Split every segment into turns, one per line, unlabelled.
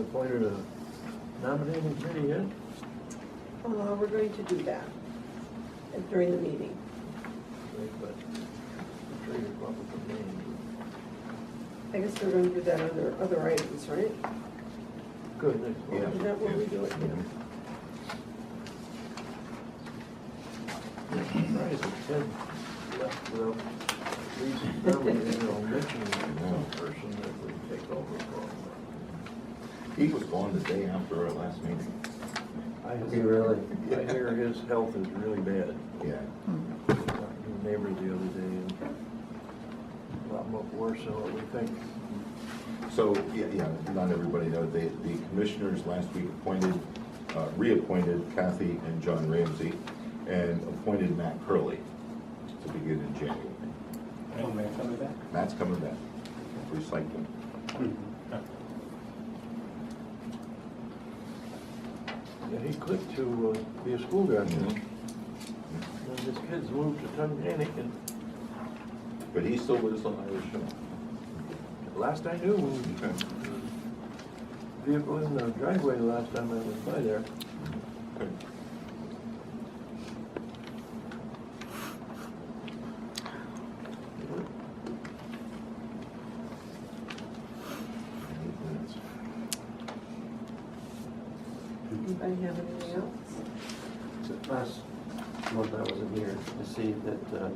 appointed a nominating committee yet?
Uh, we're going to do that during the meeting.
Wait, But I'm sure you come up with the names.
I guess we're going to do that under other items, right?
Good, next
Yeah.
Is
one.
that what we do it? Yeah.
Surprised that Ted left without at least verbally or mentioning some person that would take over for him.
He was gone the day after our last meeting.
I
You really?
I hear his health is really bad.
Yeah.
Talking to a neighbor the other day and a lot more worse than what we think.
So, yeah, yeah, not everybody knows, the, the commissioners last week appointed, uh, reappointed Kathy and John Ramsey and appointed Matt Curley to begin in January.
Oh, may I come with that?
Matt's coming back, recycling.
Hmm.
Yeah, he quit to uh, be a school director.
Mhm.
And his kids moved to Tunganic and
But he's still with us on Irish Hill.
last I knew, uh,
Okay.
vehicle in the driveway last time I was by there.
Good. Eight minutes.
Anybody have anything else?
Last month I wasn't here to see that uh,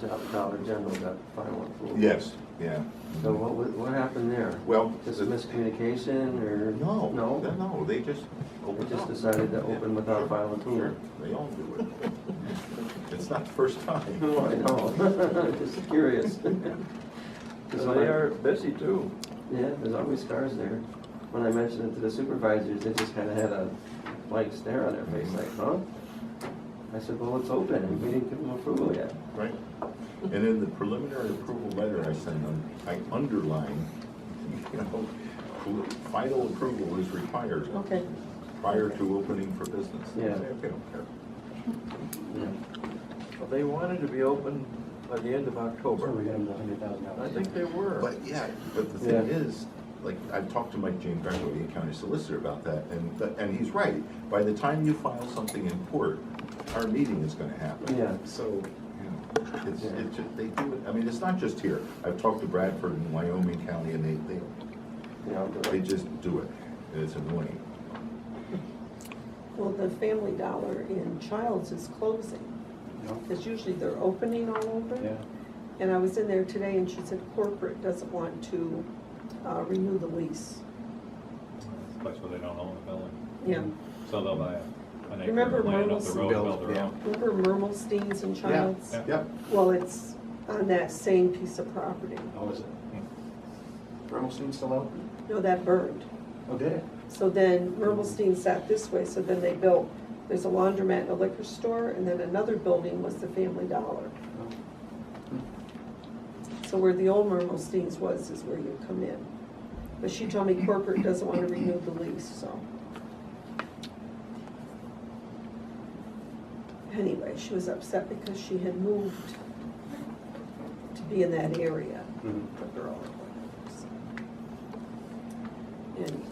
the Do- Dollar General got final approval.
Yes, yeah.
So what, wa- what happened there?
Well,
Just a miscommunication or?
No, no,
No?
no, they just
They
opened
just
up.
decided to open without final
Sure,
approval.
They all do it. It's not the first time.
No, Oh, I know, just curious. Because
So they are busy too.
Yeah, there's always stars there. When I mentioned it to the supervisors, they just kinda had a blank stare on their face, like, huh? I said, well, it's open, and we didn't give them approval yet.
Right. And in the preliminary approval letter I sent them, I underline, you know, final approval is required.
Okay.
Prior to opening for business.
Yeah.
They don't care.
Yeah.
Well, They wanted to be open by the end of
Sure, we
October.
got him the hundred thousand
I
dollars.
think they were.
But yeah, but the thing
Yeah.
is, like, I've talked to Mike Jane Greco, the county solicitor, about that, and, and he's right. By the time you file something in court, our meeting is gonna happen.
Yeah.
So, you know, it's,
Yeah.
it's, they do it, I mean, it's not just here. I've talked to Bradford and Wyoming County, and they, they,
You know,
they just do it, and it's annoying.
Well, the Family Dollar in Childs is closing,
No?
because usually they're opening all over.
Yeah.
And I was in there today and she said corporate doesn't want to uh, renew the lease.
It's a place where they don't own a building,
Yeah.
so they'll buy an acre
Remember
of land up Mm. the
Merle's
road and
Build,
build their
yeah.
own.
Remember Mermelstein's in Childs?
Yeah.
Yep,
Well, it's on that same piece of property.
How was it? Bernstein still out?
No, that burned.
Oh, did it?
So then Mermelstein sat this way, so then they built, there's a laundromat and a liquor store, and then another building was the Family Dollar.
No.
So where the old Mermelstein's was is where you come in. But she told me corporate doesn't want to renew the lease, so. Anyway, she was upset because she had moved to be in that area.
Mhm.
The girl. or whatever, so. Anyway.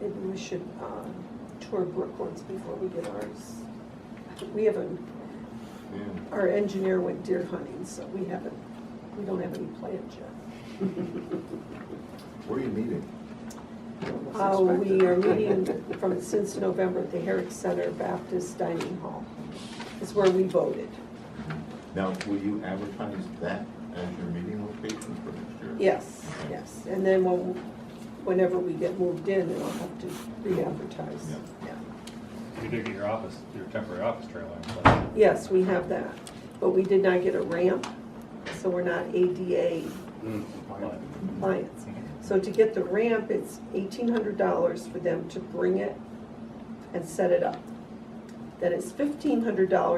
Maybe we should um, tour Brooklands before we get ours. We haven't,
yeah.
our engineer went deer hunting, so we haven't, we don't have any plans yet.
Where are you meeting?
Uh, We are meeting from, since November at the Herrick Center Baptist Dining Hall. It's where we voted.
Now, will you advertise that as your meeting location for next year?
Yes, yes. And then when- whenever we get moved in, then I'll have to re-advertise.
Yeah.
Yeah.
You do get your office, your temporary office trailer in place.
Yes, we have that, but we did not get a ramp, so we're not ADA
Mm.
But
clients. So to get the ramp, it's eighteen hundred dollars for them to bring it and set it up. Then it's fifteen hundred dollars